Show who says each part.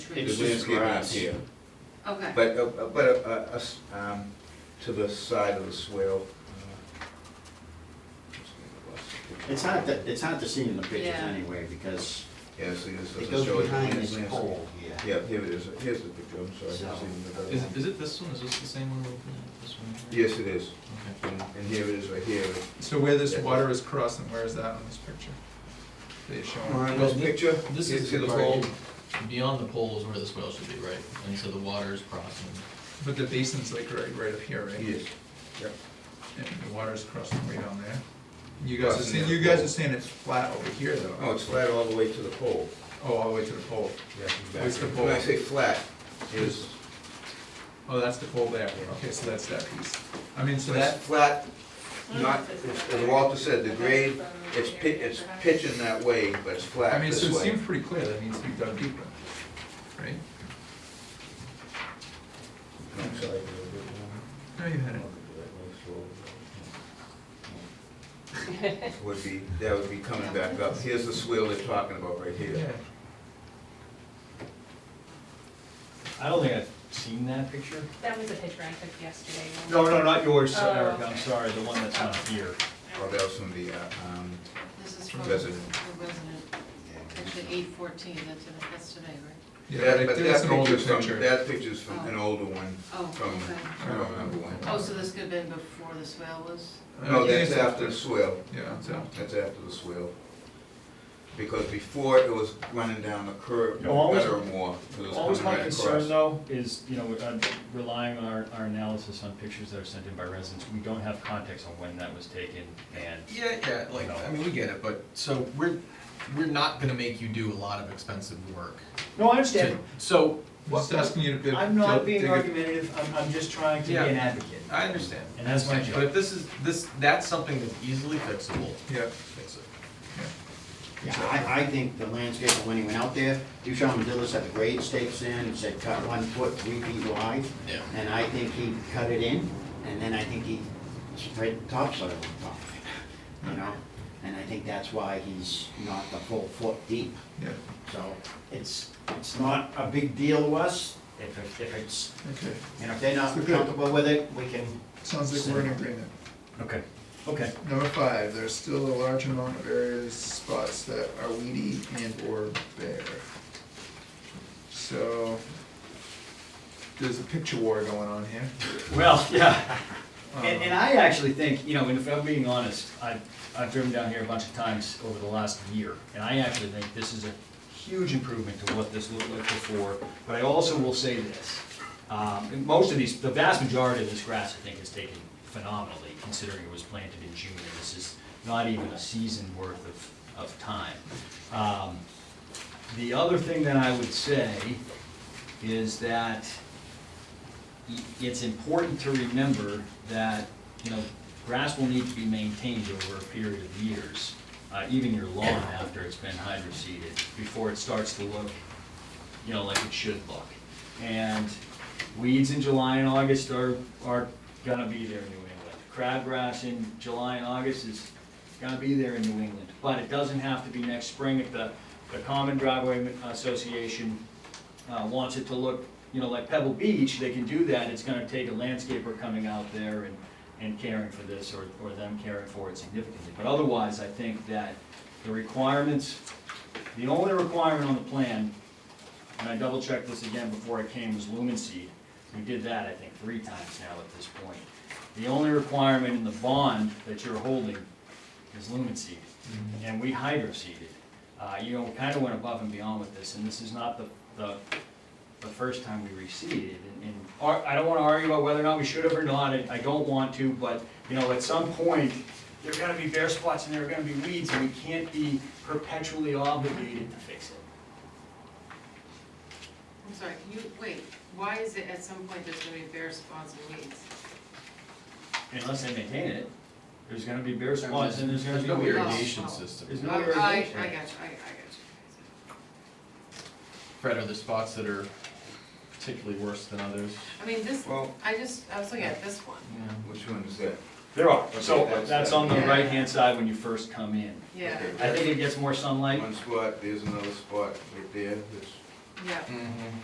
Speaker 1: It's
Speaker 2: trees.
Speaker 1: The
Speaker 3: just
Speaker 1: landscape
Speaker 3: grass.
Speaker 1: is here,
Speaker 2: Okay,
Speaker 1: but, uh, uh, but, uh, uh, us, um, to the side of the swale. uh,
Speaker 3: It's hard to, it's hard to see in the pictures
Speaker 2: Yeah.
Speaker 3: anyway, because
Speaker 1: Yeah, see, this
Speaker 3: it
Speaker 1: doesn't
Speaker 3: goes
Speaker 1: show it.
Speaker 3: behind
Speaker 1: It's
Speaker 3: this
Speaker 1: landscape.
Speaker 3: pole here.
Speaker 1: Yeah, here it is, here's the picture, I'm sorry.
Speaker 3: So-
Speaker 1: I didn't see the other
Speaker 4: Is,
Speaker 1: one.
Speaker 4: is it this one, is this the same one we're looking at, this one? here?
Speaker 1: Yes, it is,
Speaker 4: Okay.
Speaker 1: and, and here it is right here.
Speaker 4: So where this
Speaker 1: Yeah.
Speaker 4: water is crossing, where is that on this picture? That you're
Speaker 1: On
Speaker 4: showing?
Speaker 1: this
Speaker 5: thi-
Speaker 1: picture, you
Speaker 5: This is
Speaker 1: see
Speaker 5: the
Speaker 1: the
Speaker 5: pole,
Speaker 1: pole?
Speaker 5: beyond the pole is where the swale should be, right? And so the water is crossing.
Speaker 4: But the basin's like right, right up here, right?
Speaker 1: Yes, yep.
Speaker 4: And the water's crossing way down there. You guys are
Speaker 1: Crossing
Speaker 4: saying,
Speaker 1: the
Speaker 4: you guys
Speaker 1: pole.
Speaker 4: are saying it's flat over here though?
Speaker 1: Oh, it's flat all the way to the pole.
Speaker 4: Oh, all the way to the pole.
Speaker 1: Yeah,
Speaker 4: Where's the
Speaker 1: exactly.
Speaker 4: pole?
Speaker 1: When I say flat, is,
Speaker 4: Oh, that's the pole there, okay, so that's that piece. I mean, so
Speaker 1: it's
Speaker 4: that,
Speaker 1: flat, not, it's- as Walter said, the grade, it's pi, it's pitching that way, but it's
Speaker 4: I
Speaker 1: flat
Speaker 4: mean, so
Speaker 1: this
Speaker 4: it
Speaker 1: way.
Speaker 4: seems pretty clear that needs to be dug deeper, right?
Speaker 1: I'm sorry, a little bit more.
Speaker 4: No, you had it.
Speaker 1: Would be, that would be coming back up. Here's the swale they're talking about right here.
Speaker 6: I don't think I've seen that picture.
Speaker 7: That was a picture I took yesterday.
Speaker 6: No, no, not yours,
Speaker 2: Oh.
Speaker 6: Eric, I'm sorry, the one that's not here.
Speaker 1: Or that was from the, uh, um,
Speaker 2: this is from the
Speaker 1: Resident.
Speaker 2: resident, actually eight fourteen, that's, it- that's today, right?
Speaker 4: Yeah,
Speaker 1: that-
Speaker 4: but
Speaker 1: but
Speaker 4: it- that's
Speaker 1: that
Speaker 4: an older
Speaker 1: picture's from,
Speaker 4: picture.
Speaker 1: that picture's from an older one,
Speaker 2: Oh,
Speaker 1: from,
Speaker 2: okay.
Speaker 1: I don't remember when.
Speaker 2: Oh, so this could have been before the swale was?
Speaker 1: No,
Speaker 4: I think
Speaker 1: that's
Speaker 4: it's-
Speaker 1: after the swale.
Speaker 4: Yeah, it's after.
Speaker 1: That's after the swale. Because before, it was running down the curb,
Speaker 6: No, always-
Speaker 1: better or more, 'cause it was
Speaker 6: Always
Speaker 1: coming
Speaker 6: my
Speaker 1: right
Speaker 6: concern
Speaker 1: across.
Speaker 6: though is, you know, we're, uh, relying on our, our analysis on pictures that are sent in by residents, we don't have context on when that was taken and.
Speaker 5: Yeah, yeah, like, I mean, we get it, but, so we're, we're not gonna make you do a lot of expensive work.
Speaker 6: No, I
Speaker 5: to-
Speaker 6: understand,
Speaker 5: So,
Speaker 4: I'm just asking you to bid.
Speaker 6: I'm not being
Speaker 4: dig a-
Speaker 6: argumentative, I'm, I'm just trying to be
Speaker 5: Yeah.
Speaker 6: an advocate.
Speaker 5: I understand.
Speaker 6: And that's my job.
Speaker 5: But if this is, this, that's something that's easily fixable,
Speaker 4: Yeah,
Speaker 5: fix it.
Speaker 3: Yeah, I, I think the landscaper, when he went out there, Duchamp Dillis had the grade stakes in, and said cut one foot, three feet wide.
Speaker 5: Yeah.
Speaker 3: And I think he cut it in, and then I think he spread topsoil on top of it, you know? And I think that's why he's not the full foot deep.
Speaker 4: yeah,
Speaker 3: So it's, it's not a big deal to us, if, if- if it's,
Speaker 4: okay.
Speaker 3: you know, if they're not
Speaker 4: So good.
Speaker 3: comfortable with it, we can.
Speaker 4: Sounds like we're in agreement.
Speaker 6: Okay, okay.
Speaker 4: Number five, there's still a large amount of areas, spots that are weedy and or bare. So, there's a picture war going on here.
Speaker 6: Well, yeah,
Speaker 4: Um,
Speaker 6: and, and I actually think, you know, and if I'm being honest, I've, I've driven down here a bunch of times over the last year, and I actually think this is a huge improvement to what this looked like before, but I also will say this. Um, and most of these, the vast majority of this grass, I think, is taken phenomenally, considering it was planted in June, and this is not even a season worth of, of time. Um, The other thing that I would say is that it's important to remember that, you know, grass will need to be maintained over a period of years, uh, even your lawn after it's been hydroseeded, before it starts to look, you know, like it should look. And weeds in July and August are, are gonna be there in New England. Crabgrass in July and August is gonna be there in New England, but it doesn't have to be next spring if the, the Common Driveway Association uh, wants it to look, you know, like Pebble Beach, they can do that, it's gonna take a landscaper coming out there and, and caring for this, or, or them caring for it significantly. But otherwise, I think that the requirements, the only requirement on the plan, and I double checked this again before I came, was lumen seed. We did that, I think, three times now at this point. The only requirement in the bond that you're holding is lumen seed, and we hydro seeded. Uh, you know, kinda went above and beyond with this, and this is not the, the, the first time we reseeded, and, and, ar- I don't wanna argue about whether or not we should have or not, I, I don't want to, but, you know, at some point, there are gonna be bare spots and there are gonna be weeds, and we can't be perpetually obligated to fix it.
Speaker 2: I'm sorry, can you, wait, why is it at some point there's gonna be bare spots and weeds?
Speaker 6: Unless they maintain it, there's gonna be bare spots and there's gonna
Speaker 5: There's
Speaker 6: be
Speaker 5: no
Speaker 6: weeds.
Speaker 5: irrigation
Speaker 2: Oh.
Speaker 5: system.
Speaker 6: There's
Speaker 2: I,
Speaker 6: no
Speaker 2: I, I got you,
Speaker 6: irrigation.
Speaker 2: I, I got you.
Speaker 5: Fred, are there spots that are particularly worse than others?
Speaker 2: I mean, this,
Speaker 1: Well,
Speaker 2: I just, I was looking at this one,
Speaker 1: which one is that?
Speaker 6: There are, so
Speaker 1: Okay, that's-
Speaker 6: that's on the
Speaker 2: Yeah.
Speaker 6: right-hand side when you first come in.
Speaker 2: yeah,
Speaker 1: Okay.
Speaker 6: I think it gets more sunlight.
Speaker 1: One spot, there's another spot right there, it's
Speaker 2: yeah.
Speaker 5: Mm-hmm.